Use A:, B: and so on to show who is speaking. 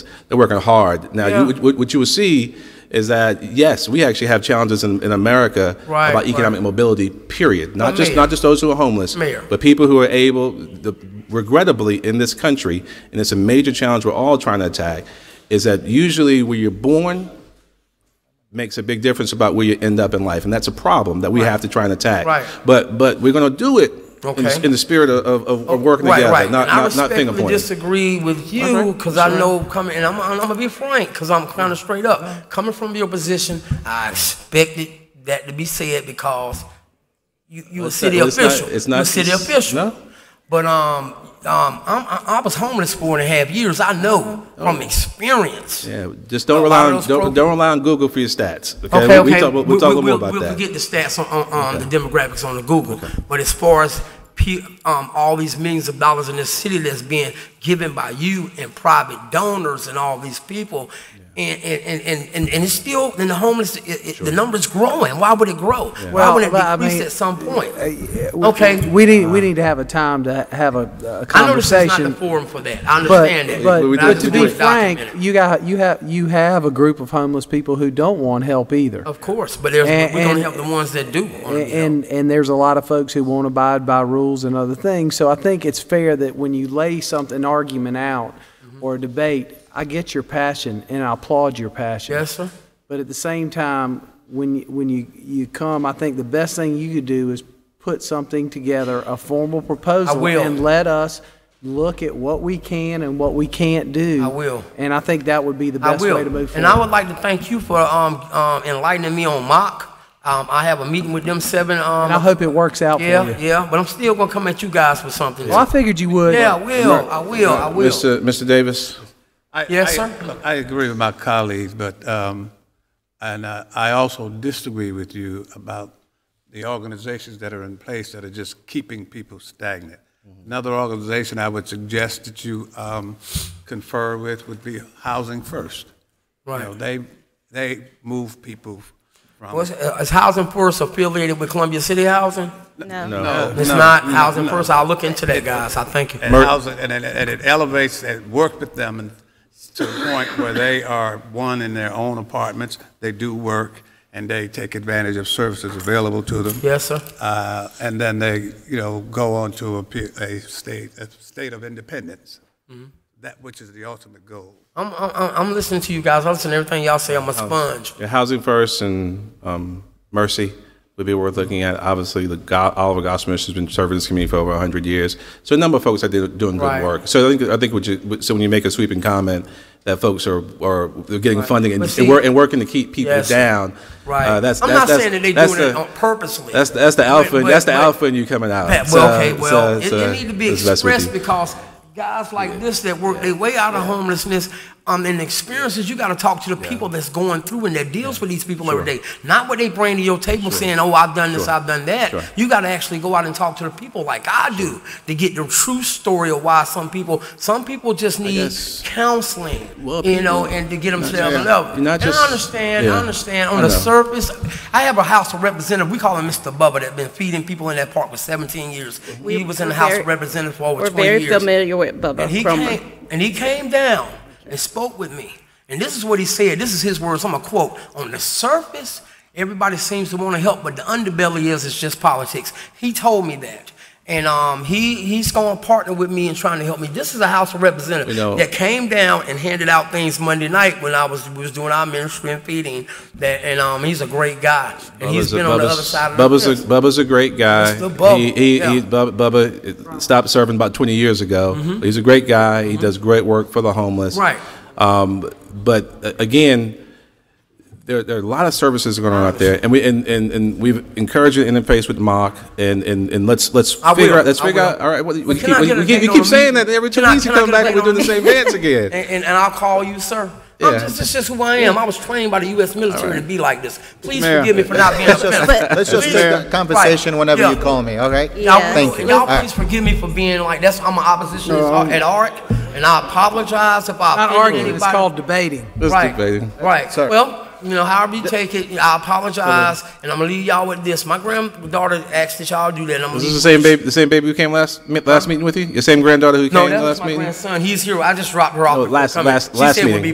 A: They're working hard. Now,
B: Yeah.
A: you, what, what you will see is that yes, we actually have challenges in, in America
B: Right,
A: about economic mobility. Period. Not
B: But
A: just
B: Mayor-
A: not just those who are homeless,
B: Mayor.
A: but people who are able. The, regrettably, in this country, and it's a major challenge we're all trying to attack, is that usually where you're born makes a big difference about where you end up in life, and that's a problem that we have to try and attack.
B: Right.
A: But but we're going to do it. In,
B: Okay. Oh,
A: the, in the spirit of, of, of working
B: right,
A: together,
B: right.
A: not,
B: and I
A: not, not
B: respectfully
A: finger pointing.
B: disagree with you
A: Okay,
B: because I
A: sure.
B: know coming, and I'm, I'm, gonna be frank because I'm kind of straight up. Coming from your position, I expected that to be said because you you a
A: It's
B: city
A: not- it's not-
B: official.
A: it's not-
B: you a city
A: it's-
B: official.
A: no.
B: But um um I'm, I, I was homeless four and a half years. I know
A: Oh.
B: from experience.
A: Yeah, just don't
B: A
A: rely
B: lot of
A: on
B: those
A: don't,
B: programs-
A: don't rely on Google for your stats. Okay,
B: Okay,
A: we,
B: okay.
A: we talk, we'll, we'll
B: We-
A: talk
B: we-
A: a little more
B: we'll-
A: about
B: We'll
A: that.
B: get the stats on, on, on the demographics on the Google. But as far as pe- um, all these millions of dollars in this city that's being given by you and private donors and all these people, and, and, and- and, and, and it's still, and the homeless, it, it, the number's growing. Why would it grow? Why
C: Well,
B: would it
C: but I
B: decrease
C: mean, uh,
B: at some point? okay.
C: We need, we need to have a time to have a, a
B: I know this is not the
C: conversation.
B: forum for that. I
C: But,
B: understand that.
C: but,
A: But we
C: but
A: did
B: I
C: to
B: just
C: be
B: want it
C: frank,
B: documented.
C: you got, you have, you have a group of homeless people who don't want help either.
B: Of course, but there's,
C: And-
B: we're going to
C: and-
B: help the ones that do. wanna be helped.
C: and and there's a lot of folks who won't abide by rules and other things. So I think it's fair that when you lay something, an argument out
B: Mm-hmm.
C: or a debate, I get your passion and I applaud your passion.
B: Yes, sir.
C: But at the same time, when you, when you you come, I think the best thing you could do is put something together, a formal proposal,
B: will.
C: and let us look at what we can and what we can't do.
B: I will.
C: And I think that would be the
B: I
C: best
B: will.
C: way to move
B: And
C: forward.
B: I would like to thank you for um, um, enlightening me on mock. Um, I have a meeting with them seven. Um,
C: And I hope it works out
B: yeah,
C: for you.
B: yeah. But I'm still gonna come at you guys with something.
C: Well, I figured you would.
B: yeah, I will. I will. I will.
A: Mr. Mr. Davis,
D: I-
B: Yes,
D: I-
B: sir.
D: I agree with my colleagues, but, um, and uh, I also disagree with you about the organizations that are in place that are just keeping people stagnant.
B: Mm-hmm.
D: Another organization I would suggest that you um, confer with would be Housing First. You know,
B: Right.
D: They, they move people from.
B: What's- uh, is Housing First affiliated with Columbia City Housing?
A: no.
B: It's not Housing First. I'll look into that, guys. I thank you.
D: and housing, and it, and it elevates, it works with them and to the point where they are, one, in their own apartments, they do work, and they take advantage of services available to them.
B: Yes, sir.
D: Uh, and then they, you know, go on to a, pe- a state, a state of independence, that which is the ultimate goal.
B: I'm, I'm, I'm- I'm listening to you guys. I listen to everything y'all say. I'm
A: Oh.
B: a sponge.
A: Yeah, housing first and um, mercy would be worth looking at. Obviously, the Go- Oliver Gosmish has been serving this community for over 100 years. So a number of folks are do- doing good
B: Right.
A: work. So I think I think what you, so when you make a sweeping comment that folks are are they're getting funding and,
B: But
A: and,
B: see-
A: wor- and working to keep people
B: Yes.
A: down.
B: Right.
A: Uh, that's
B: I'm
A: that's,
B: not
A: that's,
B: saying that they
A: that's
B: doing it
A: the-
B: on purposely.
A: That's the, that's the
B: But-
A: alpha.
B: but-
A: that's the
B: but-
A: alpha, and you coming out.
B: Pat,
A: So-
B: well, okay, well,
A: so-
B: it,
A: so
B: it need to be
A: uh, it's best we
B: expressed
A: do.
B: because guys like this that work their way out of homelessness um, and experiences, you got to talk to the people that's going through and that deals with these people every day. Not what they bring to your table saying, oh, I've done this, I've done that.
A: Sure.
B: You got to actually go out and talk to the people like I do to get the true story of why some people, some people just need
A: guess-
B: counseling,
A: Well,
B: you know,
A: people-
B: and to get themselves
A: Yeah.
B: up.
A: You're not
B: and I
A: just-
B: understand, I
A: yeah.
B: understand.
A: I
B: On the
A: know.
B: surface, purpose. I have a House of Representative. We call him Mr. Bubba that been feeding people in that park for 17 years.
E: We-
B: he was in
E: we're
B: the House
E: very-
B: of Representatives for over
E: We're
B: 20
E: very
B: years.
E: familiar with Bubba
B: and he
E: from
B: came and he came down and spoke with me. And this is what he said. This is his words. I'm gonna quote. On the surface, everybody seems to want to help, but the underbelly is it's just politics. He told me that. And um, he, he's going to partner with me in trying to help me. This is a House of Representatives
A: You know-
B: that came down and handed out things Monday night when I was, was doing our ministry and feeding. That, and um, he's a great guy. And he's
A: Bubba's a-
B: been on the
A: Bubba's-
B: other side of
A: Bubba's
B: the
A: a, Bubba's a great guy.
B: Mr. Bubba,
A: He, he,
B: yeah.
A: he, Bubba, Bubba uh, stopped serving about 20 years ago. He's a great guy. He does great work for the homeless.
B: Mm-hmm. Right.
A: Um, but uh, again, there, there are a lot of services going on out there, and we and, and, and we've encouraged an interface with Mock, and, and, and let's let's
B: I
A: figure
B: will,
A: out let's
B: I
A: figure
B: will.
A: out. All right, well, you
B: But
A: keep,
B: can I
A: well,
B: get a
A: you keep,
B: date
A: you
B: on
A: keep
B: the
A: saying
B: meeting?
A: that every two
B: Can I-
A: weeks you
B: can I
A: come
B: get a
A: back and
B: date
A: we're doing the
B: on
A: same
B: the-
A: dance again.
B: And, and, and I'll call you, sir. I'm
A: Yeah.
B: just, this is just who I am. I was trained by the U.S. military to be like this. Please
F: Mayor.
B: forgive me for not being a
F: Let's
B: feminist.
F: just, let's just
B: Please-
F: make that conversation
B: Right.
F: whenever you
B: Yeah.
F: call me, all right?
E: Yeah.
B: Y'all,
F: Thank you.
B: y'all
F: All right.
B: please forgive me for being like that's I'm an oppositionist at ARC, and I apologize if I
C: Not
B: offended
C: arguing, it's
B: anybody.
C: called debating.
A: Let's
B: right,
A: debate it.
B: right.
F: Sir.
B: Well, you know, however you take it, I apologize, and I'm gonna leave y'all with this. My granddaughter asked that y'all do that. And I'm gonna
A: Is this
B: leave
A: the same baby? The same baby who came last mi- last meeting with you? Your same granddaughter who
B: Uh, No,
A: came
B: that was
A: last
B: my
A: meeting?
B: grandson. He's here. I just dropped her off.
A: No,
B: before
A: last-
B: coming.
A: last-
B: she
A: last
B: said we'll
A: meeting.
B: be